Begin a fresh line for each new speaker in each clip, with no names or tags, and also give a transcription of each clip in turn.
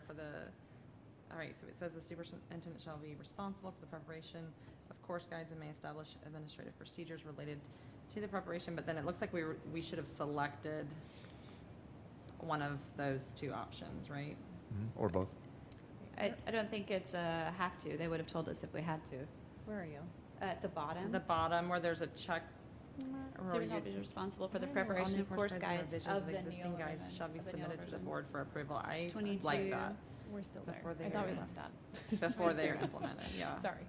for the, all right, so it says the superintendent shall be responsible for the preparation of course guides and may establish administrative procedures related to the preparation, but then it looks like we were, we should have selected one of those two options, right?
Mm-hmm. Or both.
I, I don't think it's a have to. They would have told us if we had to.
Where are you?
At the bottom.
The bottom where there's a check. or you-
Superintendent is responsible Mm-hmm. for the
All
preparation
new
of course
and
guides
revisions
of the
existing
Neola
guides
version-
shall be
of the Neola
submitted to the
version.
board for approval. I like
22.
that
We're still there.
Before
I thought we
they're-
left that.
before
Right
they're
there.
implemented, yeah.
Sorry.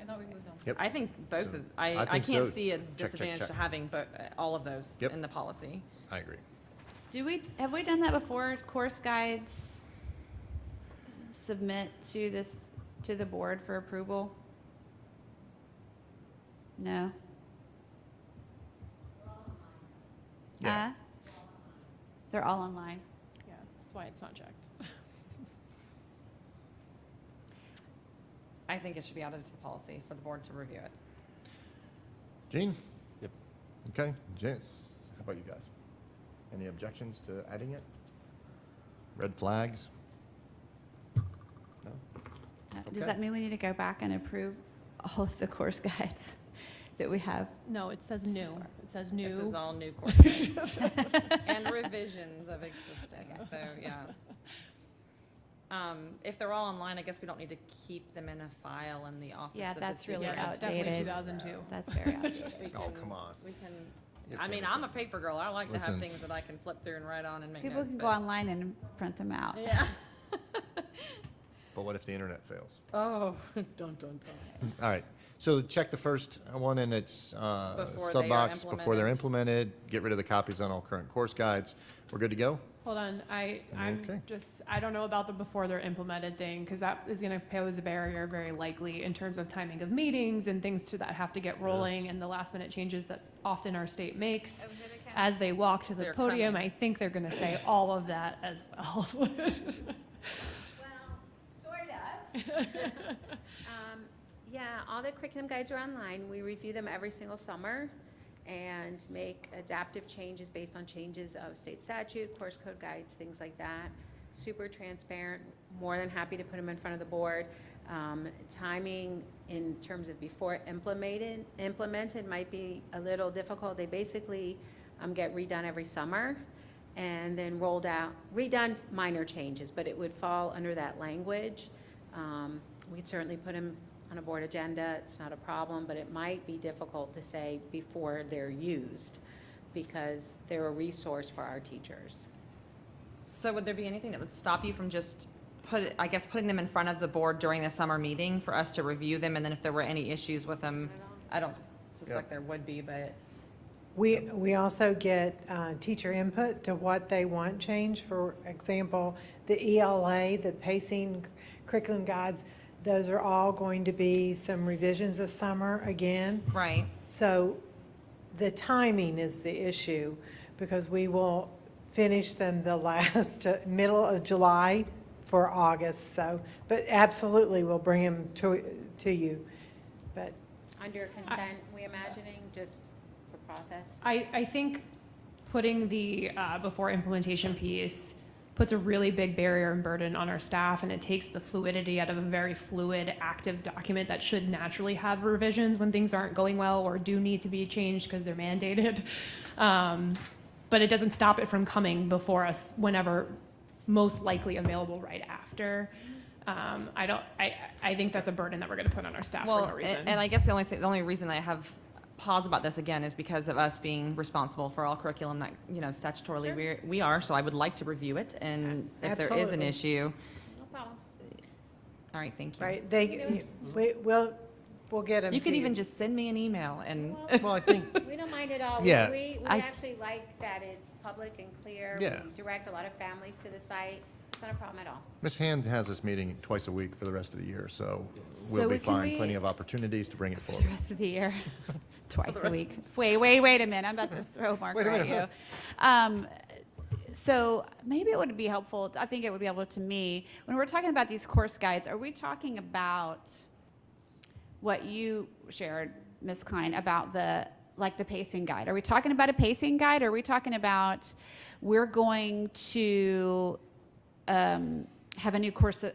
I thought we moved on.
Yep.
I think both,
So,
of- I,
I
I
think
can't
so.
see a
Check, check,
disadvantage to
check.
having bo- uh, all of those
Yep.
in the policy.
I agree.
Do we, have we done that before? Course guides s- submit to this, to the board for approval? No?
Yeah.
Huh? They're all online.
Yeah, that's why it's not checked.
I think it should be added to the policy for the board to review it.
Gene?
Yep.
Okay, Jess, how about you guys? Any objections to adding it? Red flags? No?
Uh,
Okay.
Does that mean we need to go back and approve all of the course guides that we have?
No, it says
So
new.
far.
It says
This is
new.
all new courses and revisions of existing, so, yeah. Um, if they're all online, I guess we don't need to keep them in a file in the office
Yeah,
of the E
that's really
superintendent.
It's definitely
outdated.
2002.
That's very obvious.
We
Oh,
can-
come on.
We can,
You have
I
to
mean,
listen.
I'm a paper girl. I like to have
Listen.
things that I can flip through and write on and make notes.
People can go
but-
online and print them out.
Yeah.
But what if the internet fails?
Oh, dun, dun, dun.
All right, so check the first one in its uh,
Before they are
sub-box before they're implemented. Get rid of the copies on all current course guides. We're good to go?
Hold on, I,
Okay.
I'm just, I don't know about the before they're implemented thing, because that is gonna pose a barrier very likely in terms of timing of meetings and things to that have to get rolling and the last minute changes that often our state makes. As Oh, they walk to the
They're
podium,
coming.
I think they're gonna say all of that as well.
Well, sort of. Um, Yeah, all the curriculum guides are online. We review them every single summer and make adaptive changes based on changes of state statute, course code guides, things like that. Super transparent, more than happy to put them in front of the board. Um, Timing in terms of before implemented, implemented might be a little difficult. They basically um, get redone every summer and then rolled out, redone minor changes, but it would fall under that language. Um, We'd certainly put them on a board agenda, it's not a problem, but it might be difficult to say before they're used because they're a resource for our teachers.
So would there be anything that would stop you from just put, it- I guess, putting them in front of the board during the summer meeting for us to review them? And then if there were any issues with them, I don't suspect there would be, but
We, we also get uh, teacher input to what they want changed. For example, the ELA, the pacing curriculum guides, those are all going to be some revisions this summer again.
Right.
So the timing is the issue because we will finish them the last, uh, middle of July for August, so, but absolutely we'll bring them to, to you. But
Under consent, we imagining, just for process?
I, I think putting the uh, before implementation piece puts a really big barrier and burden on our staff, and it takes the fluidity out of a very fluid, active document that should naturally have revisions when things aren't going well or do need to be changed because they're mandated. Um, but it doesn't stop it from coming before us whenever most likely available right after. Um, I don't. I, I think that's a burden that we're going to put on our staff
Well,
for no
a-
reason.
And I guess the only, thi- the only reason I have pause about this again is because of us being responsible for all curriculum that, you know, statutorily
Sure.
we're, we are, so I would like to review it, and if there is an
Absolutely.
issue,
No problem.
all right, thank you.
Right, they, we, we'll, we'll get them
You could even just send me an email and,
Well, I think,
We don't mind at all. We-
Yeah.
We, we
I-
actually like that it's public and clear.
Yeah.
We direct a lot of families to the site. It's not a problem at all.
Ms. Hand has this meeting twice a week for the rest of the year, so we'll
So
be
we- can
fine. Plenty
we-
of opportunities to bring it
for the
forward.
rest of the year, twice a week. Wait, wait, wait a minute, I'm about to throw Mark
Wait a
at you.
minute.
Um, So maybe it would be helpful, I think it would be helpful to me, when we're talking about these course guides, are we talking about what you shared, Ms. Klein, about the, like the pacing guide? Are we talking about a pacing guide, or are we talking about, we're going to um, have a new course